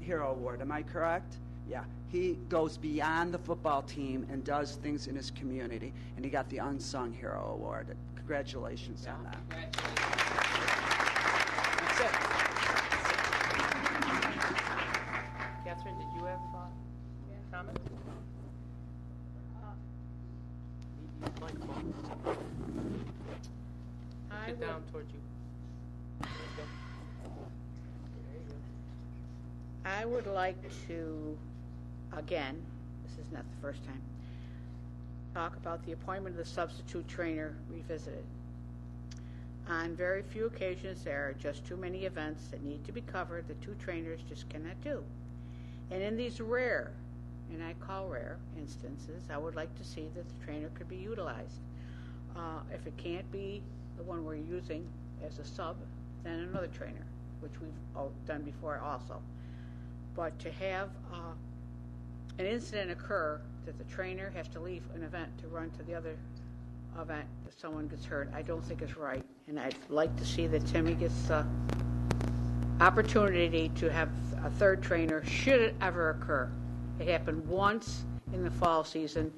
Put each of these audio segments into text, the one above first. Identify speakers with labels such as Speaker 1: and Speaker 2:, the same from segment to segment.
Speaker 1: Hero Award, am I correct? Yeah. He goes beyond the football team and does things in his community, and he got the Unsung Hero Award. Congratulations on that.
Speaker 2: That's it. Catherine, did you have uh, comments? Need your microphone.
Speaker 3: I
Speaker 2: Get
Speaker 3: would,
Speaker 2: down towards you. There you go. There you go.
Speaker 3: I would like to, again, this is not the first time, talk about the appointment of the substitute trainer revisited. On very few occasions, there are just too many events that need to be covered that two trainers just cannot do. And in these rare, and I call rare instances, I would like to see that the trainer could be utilized. Uh, if it can't be the one we're using as a sub, then another trainer, which we've all done before also. But to have uh, an incident occur that the trainer has to leave an event to run to the other event if someone gets hurt, I don't think is right. And I'd like to see that Timmy gets uh, opportunity to have a third trainer should it ever occur. It happened once in the fall season,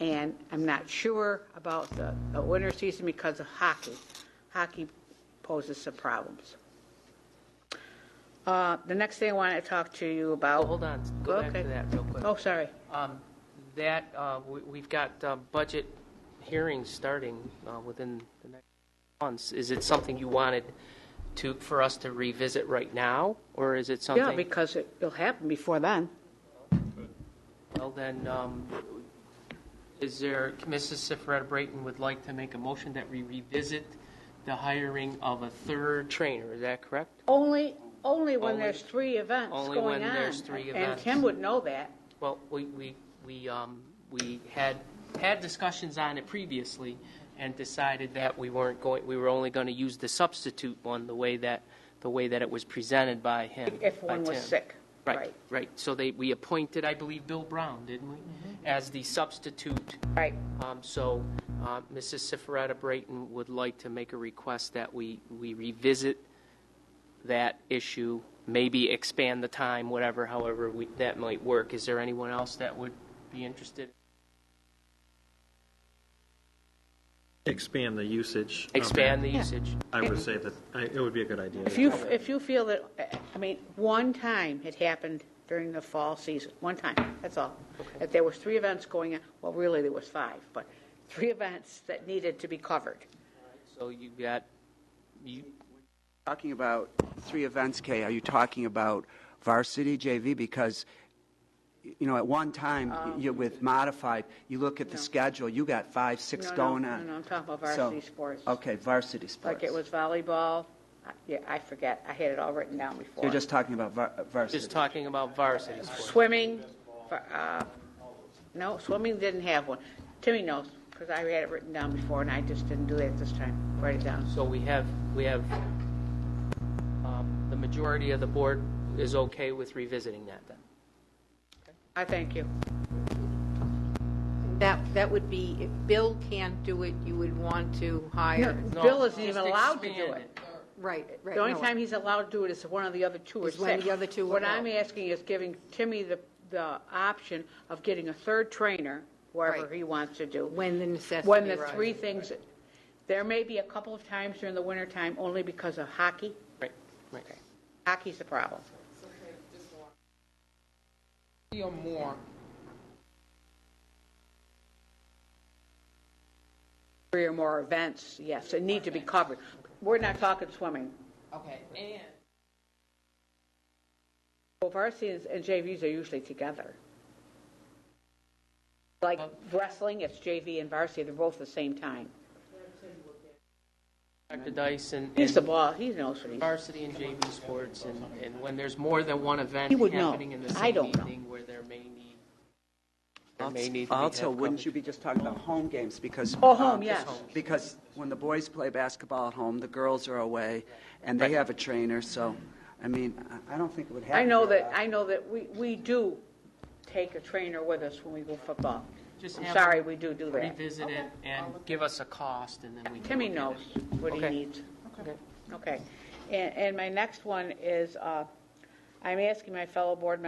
Speaker 3: and I'm not sure about the, the winter season because of hockey. Hockey poses some problems. Uh, the next thing I want to talk to you
Speaker 2: Oh,
Speaker 3: about.
Speaker 2: hold on, go back to
Speaker 3: Okay.
Speaker 2: that real quick.
Speaker 3: Oh, sorry.
Speaker 2: Um, That, uh, we- we've got uh, budget hearings starting uh, within the next months. Is it something you wanted to, for us to revisit right now, or is it something?
Speaker 3: Yeah, because it, it'll happen before then.
Speaker 2: Well, then, um, is there, Mrs. Sifreta Brayton would like to make a motion that we revisit the hiring of a third trainer, is that correct?
Speaker 3: Only, only when
Speaker 2: Only-
Speaker 3: there's three events going on.
Speaker 2: only when there's three
Speaker 3: And
Speaker 2: events.
Speaker 3: Kim would know that.
Speaker 2: Well, we, we, we, um, we had, had discussions on it previously and decided that we weren't going, we were only going to use the substitute one, the way that, the way that it was presented by him.
Speaker 3: If
Speaker 2: by
Speaker 3: one was
Speaker 2: Tim.
Speaker 3: sick,
Speaker 2: Right,
Speaker 3: right.
Speaker 2: right. So they, we appointed, I believe, Bill Brown, didn't we?
Speaker 3: Mm-hmm.
Speaker 2: As the substitute
Speaker 3: Right.
Speaker 2: Um, So uh, Mrs. Sifreta Brayton would like to make a request that we we revisit that issue, maybe expand the time, whatever, however we- that might work. Is there anyone else that would be interested?
Speaker 4: Expand the usage. of
Speaker 2: Expand the
Speaker 4: it.
Speaker 2: usage?
Speaker 4: I would say that, I- it would be a good idea.
Speaker 3: If you, if you feel that, I mean, one time it happened during the fall season, one time, that's all. That there was three events going on, well, really, there was five, but three events that needed to be covered.
Speaker 2: So you got, you,
Speaker 1: Talking about three events, Kay, are you talking about varsity JV? Because, you know, at one time,
Speaker 3: Um,
Speaker 1: you with modified, you look at the schedule, you got five, six
Speaker 3: No, no,
Speaker 1: going
Speaker 3: no,
Speaker 1: on.
Speaker 3: no, I'm talking about
Speaker 1: So-
Speaker 3: varsity sports.
Speaker 1: Okay, varsity sports.
Speaker 3: Like it was volleyball, I- yeah, I forget, I had it all written down before.
Speaker 1: You're just talking about var- varsity.
Speaker 2: just talking about varsity sports.
Speaker 3: Swimming, for, uh, no, swimming didn't have one. Timmy knows, because I had it written down before, and I just didn't do that this time, write it down.
Speaker 2: So we have, we have, um, the majority of the board is okay with revisiting that then?
Speaker 3: I thank you.
Speaker 5: That, that would be, if Bill can't do it, you would want to hire,
Speaker 2: No,
Speaker 3: Bill isn't
Speaker 2: just
Speaker 3: even allowed to do
Speaker 2: expand
Speaker 3: it.
Speaker 5: right, right.
Speaker 3: The only
Speaker 5: no.
Speaker 3: time he's allowed to do it is if one of the other two are
Speaker 5: Is when
Speaker 3: sick.
Speaker 5: the other two
Speaker 3: What
Speaker 5: are
Speaker 3: I'm
Speaker 5: ill.
Speaker 3: asking is giving Timmy the, the option of getting a third trainer, wherever
Speaker 5: Right.
Speaker 3: he wants to do.
Speaker 5: When the necessity
Speaker 3: When the
Speaker 5: arises.
Speaker 3: three things, there may be a couple of times during the wintertime, only because of hockey.
Speaker 2: Right, right.
Speaker 3: Hockey's the problem.
Speaker 6: Three or more,
Speaker 3: Three or more events, yes, that need to be covered. We're not talking swimming.
Speaker 6: okay, and
Speaker 3: Well, varsity is- and JVs are usually together. Like wrestling, it's JV and varsity, they're both the same time.
Speaker 2: Dr. Dyson.
Speaker 3: He's the boss, he knows what he's
Speaker 2: varsity and JV sports, and, and when there's more than one event
Speaker 3: He would know.
Speaker 2: happening in the
Speaker 3: I
Speaker 2: same
Speaker 3: don't know.
Speaker 2: evening where there may need, there may need to be.
Speaker 1: Also,
Speaker 2: have
Speaker 1: wouldn't
Speaker 2: coverage.
Speaker 1: you be just talking about home games because?
Speaker 3: Oh, home,
Speaker 1: um,
Speaker 3: yes.
Speaker 1: Because when the boys play basketball at home, the girls are away, and they have a trainer, so, I mean, I- I don't think it would happen.
Speaker 3: I know
Speaker 1: very
Speaker 3: that,
Speaker 1: often.
Speaker 3: I know that we, we do take a trainer with us when we go football.
Speaker 2: Just
Speaker 3: I'm
Speaker 2: have
Speaker 3: sorry,
Speaker 2: them
Speaker 3: we do do that.
Speaker 2: Revisit it and give us a cost, and then we can.
Speaker 3: Timmy
Speaker 2: look at
Speaker 3: knows what he
Speaker 2: Okay.
Speaker 3: needs. Okay. And, and my next one is, uh, I'm asking my fellow board members